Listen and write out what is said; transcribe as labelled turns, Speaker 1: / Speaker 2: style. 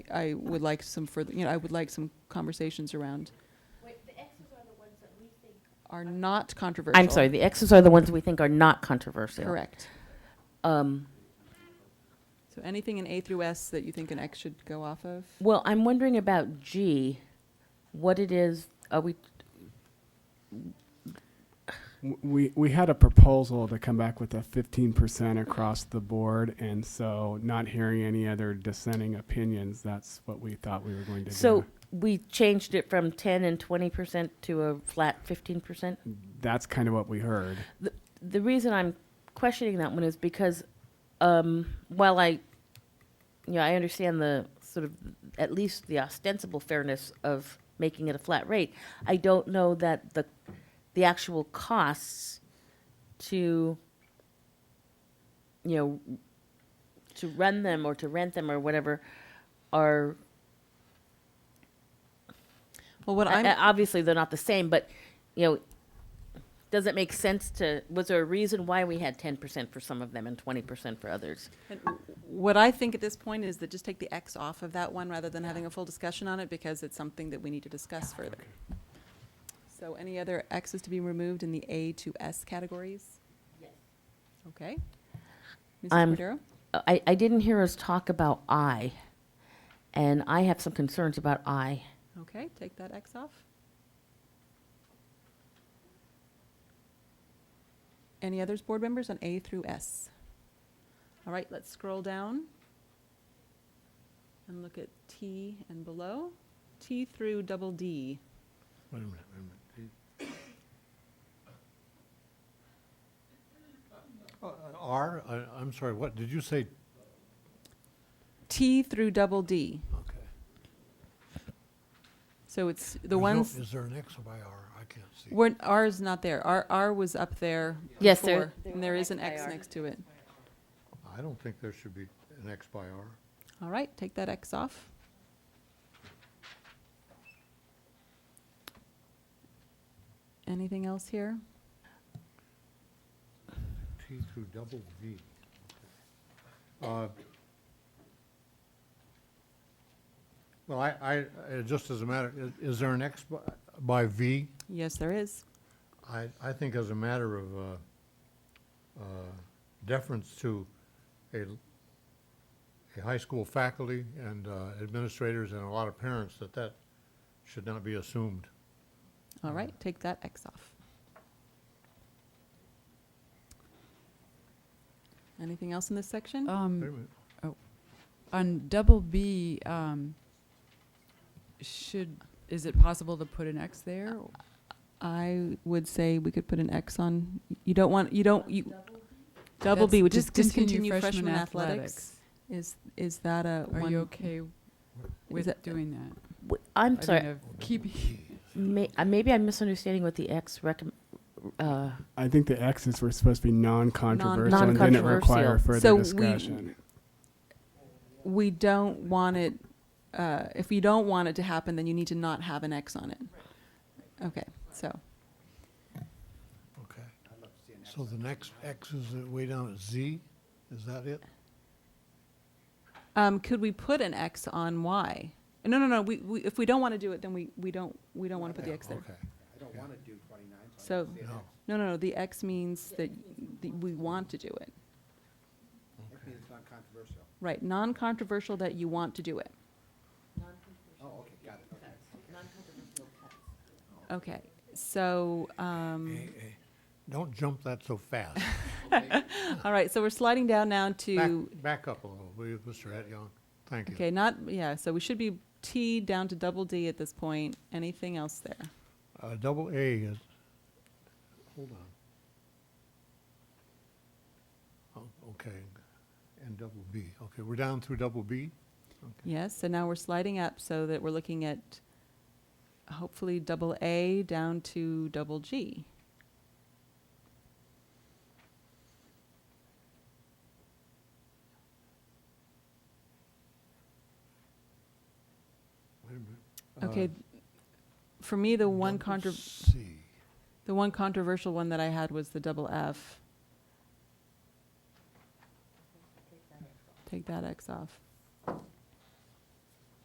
Speaker 1: I would like some further, you know, I would like some conversations around
Speaker 2: Wait, the X's are the ones that we think
Speaker 1: are not controversial.
Speaker 3: I'm sorry, the X's are the ones we think are not controversial.
Speaker 1: Correct.
Speaker 3: Um,
Speaker 1: So anything in A through S that you think an X should go off of?
Speaker 3: well, I'm wondering about G, what it is, are we,
Speaker 4: W- We, we had a proposal to come back with a fifteen percent across the board, and so not hearing any other dissenting opinions, that's what we thought we were going to do.
Speaker 3: so we changed it from ten and twenty percent to a flat fifteen percent?
Speaker 4: That's kind of what we heard.
Speaker 3: The, the reason I'm questioning that one is because, um, while I, you know, I understand the sort of, at least the ostensible fairness of making it a flat rate, I don't know that the, the actual costs to, you know, to run them or to rent them or whatever are
Speaker 1: Well, what
Speaker 3: I-
Speaker 1: I'm,
Speaker 3: I- obviously they're not the same, but you know, does it make sense to? Was there a reason why we had ten percent for some of them and twenty percent for others?
Speaker 1: And What I think at this point is that just take the X off of that one rather than having a full discussion on it because it's something that we need to discuss further. So any other X's to be removed in the A to S categories? Yes. Okay. Mrs.
Speaker 3: I'm-
Speaker 1: Cordero?
Speaker 3: Uh, I, I didn't hear us talk about I, and I have some concerns about I.
Speaker 1: Okay, take that X off. Any others, board members, on A through S? All right, let's scroll down and look at T and below. T through double D.
Speaker 5: Wait a minute, wait a minute. Uh, R, I, I'm sorry, what, did you say?
Speaker 1: T through double D.
Speaker 5: Okay.
Speaker 1: So it's
Speaker 5: There's no-
Speaker 1: the ones,
Speaker 5: Is there an X by R? I can't see.
Speaker 1: weren't, R is not there. R, R was up there
Speaker 3: Yes, there-
Speaker 1: before, and there is an X next to it.
Speaker 5: I don't think there should be an X by R.
Speaker 1: All right, take that X off. Anything else here?
Speaker 5: T through double V. Uh, Well, I, I, uh, just as a matter, i- is there an X by, by V?
Speaker 1: Yes, there is.
Speaker 5: I, I think as a matter of uh, uh, deference to a, a high school faculty and uh, administrators and a lot of parents, that that should not be assumed.
Speaker 1: All right, take that X off. Anything else in this section?
Speaker 5: Wait a
Speaker 6: Um,
Speaker 5: minute.
Speaker 6: on double B, um, should, is it possible to put an X there?
Speaker 1: Uh, I would say we could put an X on, you don't want, you don't, you, double B, which
Speaker 6: That's
Speaker 1: is discontinue freshman athletics. Is, is that a
Speaker 6: Are
Speaker 1: one?
Speaker 6: you okay with
Speaker 1: that-
Speaker 6: doing that?
Speaker 3: W- I'm
Speaker 6: I
Speaker 3: sorry,
Speaker 6: don't know, keep,
Speaker 3: may, uh, maybe I'm misunderstanding what the X recomm Uh,
Speaker 4: I think the X's were supposed to be non-controversial and didn't require
Speaker 3: Non-controversial.
Speaker 1: So
Speaker 4: further
Speaker 1: we-
Speaker 4: discussion.
Speaker 1: we don't want it, uh, if you don't want it to happen, then you need to not have an X on it. Okay, so,
Speaker 5: Okay. So the next X is way down at Z? Is that it?
Speaker 1: um, could we put an X on Y? No, no, no, we, we, if we don't want to do it, then we, we don't, we don't want to put the X there.
Speaker 5: Okay.
Speaker 1: So,
Speaker 5: No.
Speaker 1: no, no, no, the X means that the- we want to do it. Right, non-controversial that you want to do it.
Speaker 5: Oh,
Speaker 1: Okay, so, um,
Speaker 5: Hey, hey, Don't jump that so fast.
Speaker 1: all right, so we're sliding down now
Speaker 5: Back,
Speaker 1: to
Speaker 5: back up a little, will you, Mr. Etyon? Thank you.
Speaker 1: Okay, not, yeah, so we should be T down to double D at this point. Anything else there?
Speaker 5: Uh, double A is, hold on. Oh, okay, and double B, okay, we're down through double B?
Speaker 1: Yes, so now we're sliding up so that we're looking at hopefully double A down to double G.
Speaker 5: Wait a minute.
Speaker 1: Okay,
Speaker 5: Uh,
Speaker 1: th- for me, the one
Speaker 5: double
Speaker 1: contro,
Speaker 5: C,
Speaker 1: the one controversial one that I had was the double F. Take that X off.